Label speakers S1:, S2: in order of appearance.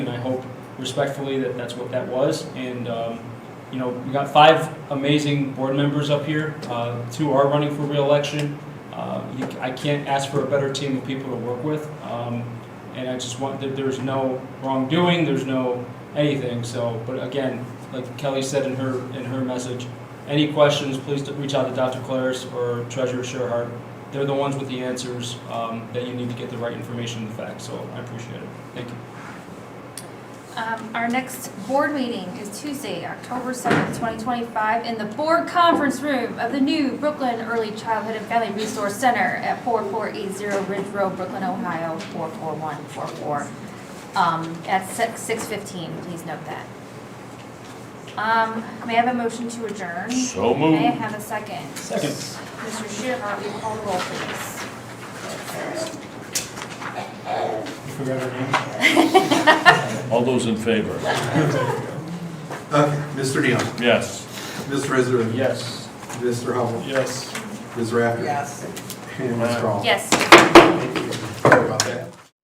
S1: And I hope respectfully that that's what that was. And, um, you know, we got five amazing board members up here. Uh, Two are running for reelection. Uh, you- I can't ask for a better team of people to work with. Um, And I just want, that there's no wrongdoing, there's no anything, so, but again, like Kelly said in her, in her message, any questions, please reach out to Dr. Claris or Treasurer Sherhart. They're the ones with the answers um, that you need to get the right information and the facts, so I appreciate it. Thank you.
S2: Um, Our next board meeting is Tuesday, October 7th, 2025, in the board conference room of the new Brooklyn Early Childhood and Family Resource Center at 4480 Ridge Road, Brooklyn, Ohio, 44144, um, at six- 6:15, please note that. Um, May I have a motion to adjourn?
S3: So
S2: May I
S3: moved.
S2: have a second?
S1: Second.
S2: Mr. Shearhart, will you call the roll, please?
S1: You forgot her name?
S3: All those in favor?
S4: Okay, Mr. Neal,
S3: Yes.
S4: Mr. Israani,
S1: Yes.
S4: Mr. Hubble,
S1: Yes.
S4: Ms. Rafter,
S5: Yes.
S4: and Mr. Hall.
S2: Yes.
S4: Sorry about that.